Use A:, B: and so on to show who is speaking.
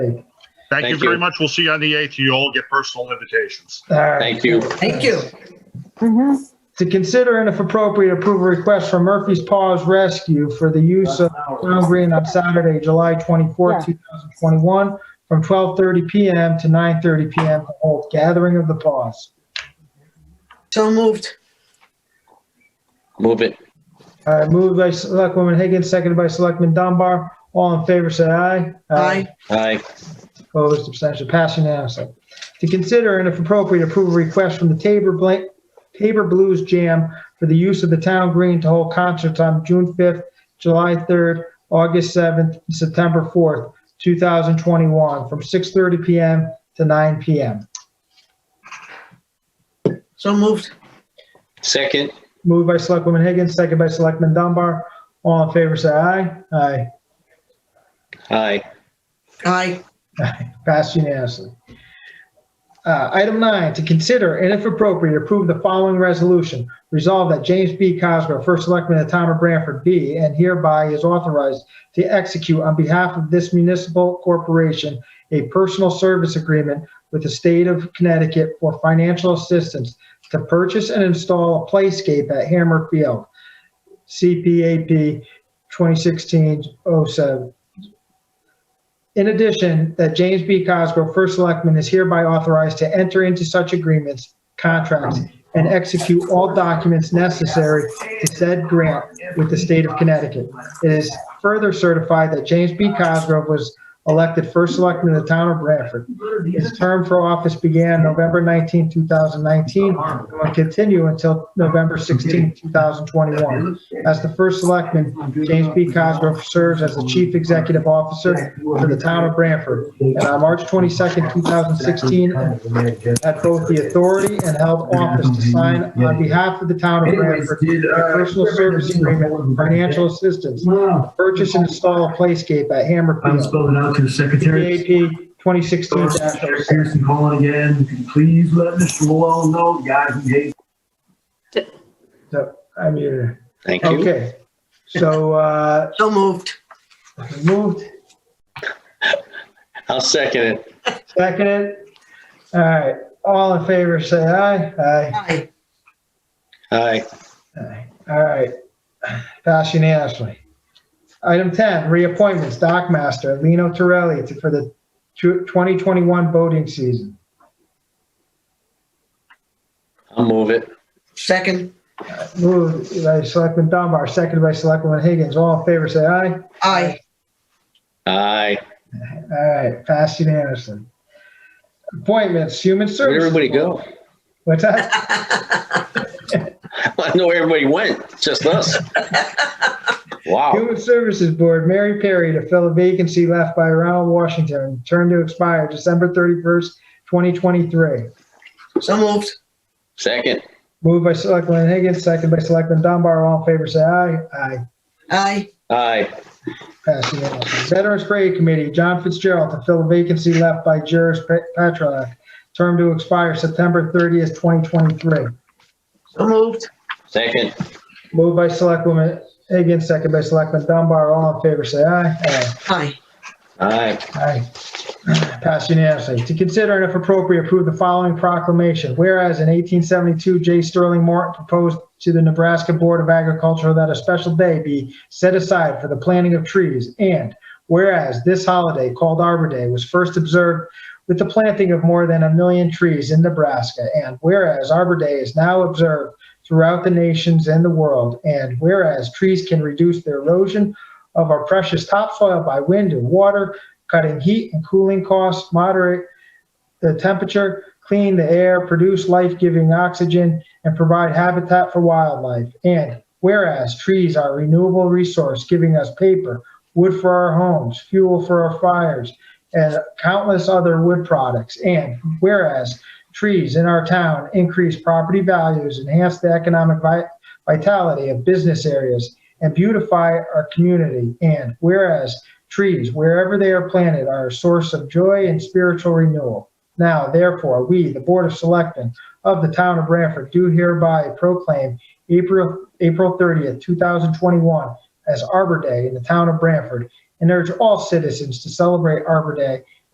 A: Thank you
B: Thank
A: very
B: you.
A: much. We'll see you on the 8th. You all get personal invitations.
C: All right.
B: Thank you.
D: Thank you.
C: To consider and if appropriate, approve a request from Murphy's Paws Rescue for the use of Town Green on Saturday, July 24, 2021, from 12:30 PM to 9:30 PM to hold gathering of the paws.
D: So moved.
B: Move it.
C: All right, moved by Selectwoman Higgins, seconded by Selectman Dunbar. All in favor, say aye.
D: Aye.
B: Aye.
C: Opposed, abstention, passed unanimously. To consider and if appropriate, approve a request from the Tabor Blank, Tabor Blues Jam for the use of the town green to hold concerts on June 5th, July 3rd, August 7th, and September 4th, 2021, from 6:30 PM to 9 PM.
D: So moved.
B: Second.
C: Moved by Selectwoman Higgins, second by Selectman Dunbar. All in favor, say aye. Aye.
B: Aye.
D: Aye.
C: Passed unanimously. Uh, Item nine, to consider and if appropriate, approve the following resolution. Resolve that James B. Cosgrove, First Selectman of the Town of Branford, be and hereby is authorized to execute on behalf of this municipal corporation a personal service agreement with the state of Connecticut for financial assistance to purchase and install a playscape at Hammer Field, CPAP 2016-07. In addition, that James B. Cosgrove, First Selectman, is hereby authorized to enter into such agreements, contracts, and execute all documents necessary to said grant with the state of Connecticut. It is further certified that James B. Cosgrove was elected First Selectman of the town of Branford. His term for office began November 19, 2019, and will continue until November 16, 2021. As the First Selectman, James B. Cosgrove serves as the Chief Executive Officer for the town of Branford, and on March 22nd, 2016, had both the authority and held office to sign on behalf of the town of Branford a personal service agreement with financial assistance,
E: Wow,
C: purchase and install a playscape at Hammer
E: I'm
C: Field.
E: spelling out to the secretary.
C: PAP 2016
E: Harrison calling again. Can you Please let Mr. Malone know, the guy who hates.
C: I mean,
B: Thank you.
C: okay. So, uh,
D: So moved.
C: moved,
B: I'll second it.
C: seconded. All right, all in favor, say aye. Aye.
D: Aye.
B: Aye.
C: Aye. All right, pass unanimously. Item 10, reappointments, Doc Master, Lino Torelli to- for the tw- 2021 boating season.
B: I'll move it.
D: Second.
C: Moved by Selectman Dunbar, seconded by Selectwoman Higgins. All in favor, say aye.
D: Aye.
B: Aye.
C: All right, pass unanimously. Appointments, Human
B: Where'd
C: Services.
B: everybody go?
C: What's that?
B: I wanna know where everybody went. Just us. Wow.
C: Human Services Board, Mary Perry to fill a vacancy left by Ronald Washington, term to expire December 31st, 2023.
D: So moved.
B: Second.
C: Moved by Selectman Higgins, second by Selectman Dunbar. All in favor, say aye. Aye.
D: Aye.
B: Aye.
C: Pass unanimously. Veterans Parade Committee, John Fitzgerald to fill a vacancy left by Juris Petrolak, term to expire September 30th, 2023.
D: So moved.
B: Second.
C: Moved by Selectwoman Higgins, second by Selectman Dunbar. All in favor, say aye. Aye.
D: Aye.
B: Aye.
C: Aye. Passed unanimously. To consider and if appropriate, approve the following proclamation. Whereas in 1872, J. Sterling Morton proposed to the Nebraska Board of Agriculture that a special day be set aside for the planting of trees. And whereas this holiday called Arbor Day was first observed with the planting of more than a million trees in Nebraska. And whereas Arbor Day is now observed throughout the nations and the world. And whereas trees can reduce the erosion of our precious topsoil by wind and water, cutting heat and cooling costs, moderate the temperature, clean the air, produce life-giving oxygen, and provide habitat for wildlife. And whereas trees are a renewable resource, giving us paper, wood for our homes, fuel for our fires, and countless other wood products. And whereas trees in our town increase property values, enhance the economic vi- vitality of business areas, and beautify our community. And whereas Trees, wherever they are planted, are a source of joy and spiritual renewal. Now, therefore, we, the Board of Selectmen of the Town of Branford, do hereby proclaim April, April 30th, 2021 as Arbor Day in the Town of Branford and urge all citizens to celebrate Arbor Day